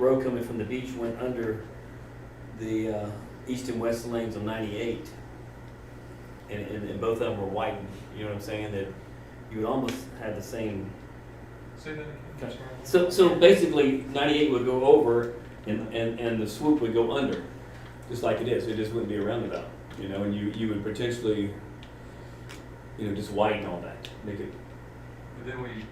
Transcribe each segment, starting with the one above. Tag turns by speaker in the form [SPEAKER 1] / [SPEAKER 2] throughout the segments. [SPEAKER 1] road coming from the beach went under the uh, east and west lanes on 98. And, and, and both of them were widened, you know what I'm saying? That you would almost have the same
[SPEAKER 2] Say that again, I'm sorry.
[SPEAKER 1] So, so basically, ninety-eight would go over and, and, and the swoop would go under, just like it is, it just wouldn't be a roundabout, you know, and you, you would potentially, you know, just widen all that, make it,
[SPEAKER 2] But then we,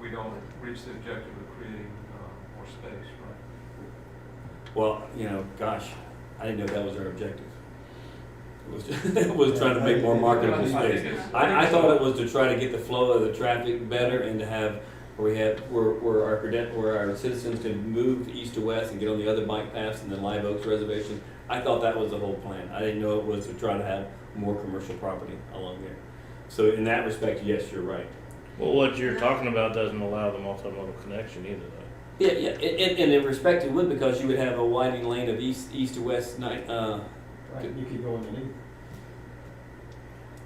[SPEAKER 2] we don't reach the objective of creating uh, more space, right?
[SPEAKER 1] well, you know, gosh, I didn't know that was our objective. It was, just- it was trying to make more marketable space. I, I thought it was to try to get the flow of the traffic better and to have, where we have, where, where our cadet, where our citizens can move east to west and get on the other bike paths and the Live Oaks Reservation. I thought that was the whole plan. I didn't know it was to try to have more commercial property along there. So in that respect, yes, you're right.
[SPEAKER 3] Well, what you're talking about doesn't allow the multimodal connection either, though.
[SPEAKER 1] Yeah, yeah, and, and- and in respect, it would because you would have a widening lane of east, east to west, night, uh,
[SPEAKER 4] Right, you could go underneath.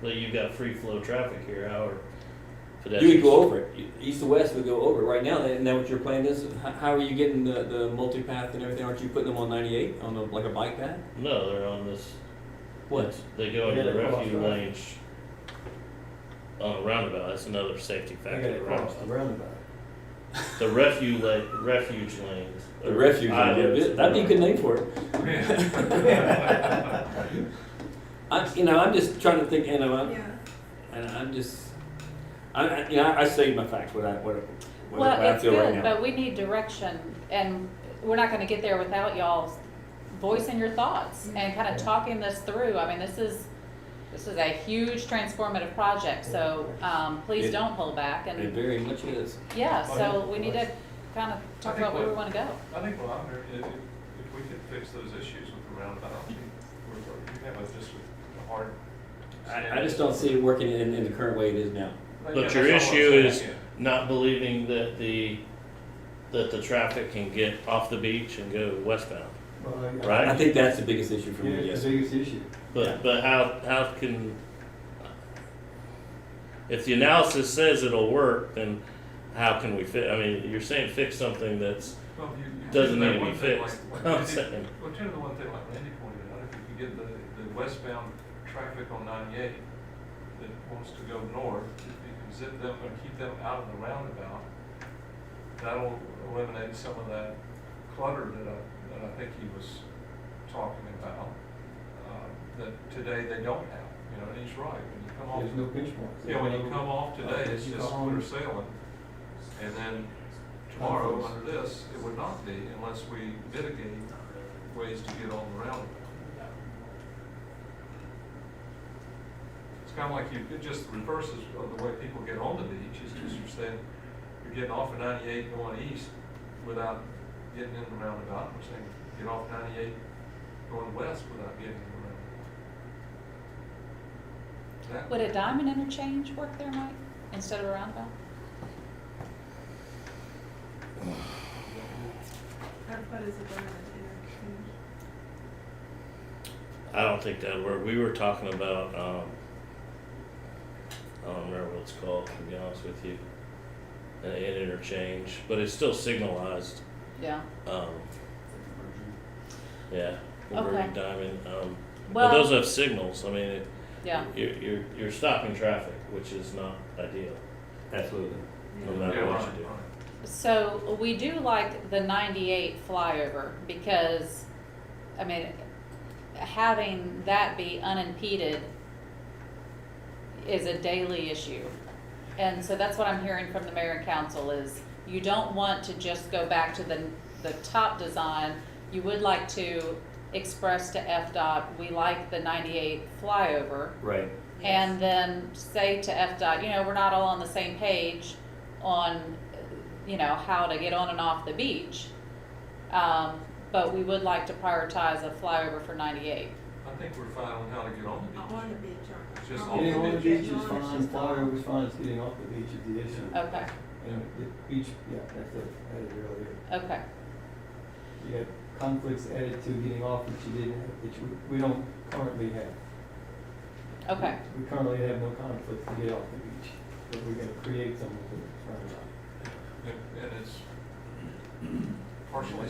[SPEAKER 3] But you've got free flow traffic here, how are
[SPEAKER 1] You
[SPEAKER 3] pedestrians?
[SPEAKER 1] would go over it. You- East to west would go over it. Right now, that- isn't that what your plan is? How, how are you getting the, the multipath and everything? Aren't you putting them on 98 on the, like a bike path?
[SPEAKER 3] No, they're on this.
[SPEAKER 1] What?
[SPEAKER 3] They go into
[SPEAKER 4] Yeah,
[SPEAKER 3] the
[SPEAKER 4] they cross
[SPEAKER 3] refuge
[SPEAKER 4] the-
[SPEAKER 3] lane sh- on a roundabout, that's another safety
[SPEAKER 4] They
[SPEAKER 3] factor.
[SPEAKER 4] gotta
[SPEAKER 3] of
[SPEAKER 4] cross the
[SPEAKER 3] roundabout.
[SPEAKER 4] roundabout.
[SPEAKER 3] The refuge la- refuge lanes.
[SPEAKER 1] The refuge.
[SPEAKER 3] Islands.
[SPEAKER 1] yeah, that'd be a good name for it. I, you know, I'm just trying to think. You know, I'm,
[SPEAKER 5] Yeah,
[SPEAKER 1] and I'm just, I, I, you know, I, I say my facts. What I what, I- what, I- what
[SPEAKER 6] Well,
[SPEAKER 1] I
[SPEAKER 6] it's
[SPEAKER 1] feel right
[SPEAKER 6] good,
[SPEAKER 1] now.
[SPEAKER 6] but we need direction, and we're not gonna get there without y'all voicing your thoughts
[SPEAKER 2] Mm-hmm.
[SPEAKER 6] and kinda talking this through. I mean, this is, this is a huge transformative project, so, um,
[SPEAKER 1] It-
[SPEAKER 6] please don't hold back,
[SPEAKER 1] it
[SPEAKER 6] and,
[SPEAKER 1] very much is.
[SPEAKER 6] yeah,
[SPEAKER 2] Oh,
[SPEAKER 6] so
[SPEAKER 2] yeah.
[SPEAKER 6] we need to kinda talk about where we wanna go.
[SPEAKER 2] I think, well, I'm, if, if if we could fix those issues with the roundabout, I think we're, we have a, just a hard.
[SPEAKER 1] I, I just don't see it working in, in the current way it is now.
[SPEAKER 2] Yeah,
[SPEAKER 3] But
[SPEAKER 2] that's all
[SPEAKER 3] your
[SPEAKER 2] I'm
[SPEAKER 3] issue
[SPEAKER 2] saying,
[SPEAKER 3] is
[SPEAKER 2] yeah.
[SPEAKER 3] not believing that the, that the traffic can get off the beach and go westbound.
[SPEAKER 4] Well, I-
[SPEAKER 3] Right.
[SPEAKER 1] I think that's the biggest issue for
[SPEAKER 4] Yeah,
[SPEAKER 1] me.
[SPEAKER 4] it's
[SPEAKER 1] Yes.
[SPEAKER 4] the biggest issue.
[SPEAKER 1] Yeah.
[SPEAKER 3] But, but how, how can, if the analysis says it'll work, then how can we fit, I mean, you're saying fix something that's,
[SPEAKER 2] Well, you- you
[SPEAKER 3] Doesn't
[SPEAKER 2] do that
[SPEAKER 3] need to be
[SPEAKER 2] one thing
[SPEAKER 3] fixed.
[SPEAKER 2] like- like
[SPEAKER 3] I'm
[SPEAKER 2] Randy-
[SPEAKER 3] saying.
[SPEAKER 2] Well, turn to the one thing like Randy pointed out, if you can get the, the westbound traffic on ninety-eight that wants to go north, if you can zip them or keep them out of the roundabout, that'll eliminate some of that clutter that I, that I think he was talking about, uh, that today they don't have, you know, and he's right, when you come off.
[SPEAKER 4] There's no pinch points.
[SPEAKER 2] Yeah, when you come off today, it's
[SPEAKER 4] You
[SPEAKER 2] just
[SPEAKER 4] go home.
[SPEAKER 2] clear sailing. And then tomorrow, under this, it would not be unless we mitigate ways to get on the roundabout. It's kind of like you, it just reverses of the way people get on the beach, it's just you're saying, you're getting off of ninety-eight going east without getting in the roundabout, we're saying, get off ninety-eight going west without getting in the roundabout. That-
[SPEAKER 6] Would a diamond interchange work there, Mike, instead of a roundabout?
[SPEAKER 5] our foot is a diamond interchange.
[SPEAKER 3] I don't think that work. We were talking about, um, I don't remember what it's called, to be honest with you, an an interchange, but it's still signalized,
[SPEAKER 6] Yeah.
[SPEAKER 3] um, yeah,
[SPEAKER 6] Okay.
[SPEAKER 3] Converging Diamond, um, but
[SPEAKER 6] Well-
[SPEAKER 3] those have signals, I mean, it-
[SPEAKER 6] Yeah,
[SPEAKER 3] you're, you're, you're stopping traffic, which is not ideal,
[SPEAKER 1] Absolutely.
[SPEAKER 3] no
[SPEAKER 2] Yeah,
[SPEAKER 3] matter what
[SPEAKER 2] right,
[SPEAKER 3] you do.
[SPEAKER 2] right.
[SPEAKER 6] So we do like the ninety-eight flyover because, I mean, having that be unimpeded is a daily issue. And so that's what I'm hearing from the mayor and council is you don't want to just go back to the, the top design. You would like to express to FDOT, we like the ninety-eight flyover.
[SPEAKER 1] Right.
[SPEAKER 6] And then say to FDOT, you know, we're not all on the same page on, you know, how to get on and off the beach. Um, but we would like to prioritize a flyover for ninety-eight.
[SPEAKER 2] I think we're fine on how to get on the
[SPEAKER 5] Not on
[SPEAKER 2] beach.
[SPEAKER 5] the beach, aren't
[SPEAKER 2] It's just
[SPEAKER 5] not
[SPEAKER 2] off
[SPEAKER 4] Getting on the beach is
[SPEAKER 5] Not on,
[SPEAKER 4] fine,
[SPEAKER 5] it's just off.
[SPEAKER 4] flyover's fine, it's getting off the beach is the issue.
[SPEAKER 6] Okay,
[SPEAKER 4] And the beach, yeah, that's it, I had it earlier.
[SPEAKER 6] okay,
[SPEAKER 4] You had conflicts added to getting off that you didn't, have, which we, we don't currently have.
[SPEAKER 6] okay.
[SPEAKER 4] We currently have no conflicts to get off the beach, but we're gonna create some with the roundabout.
[SPEAKER 2] And and it's partially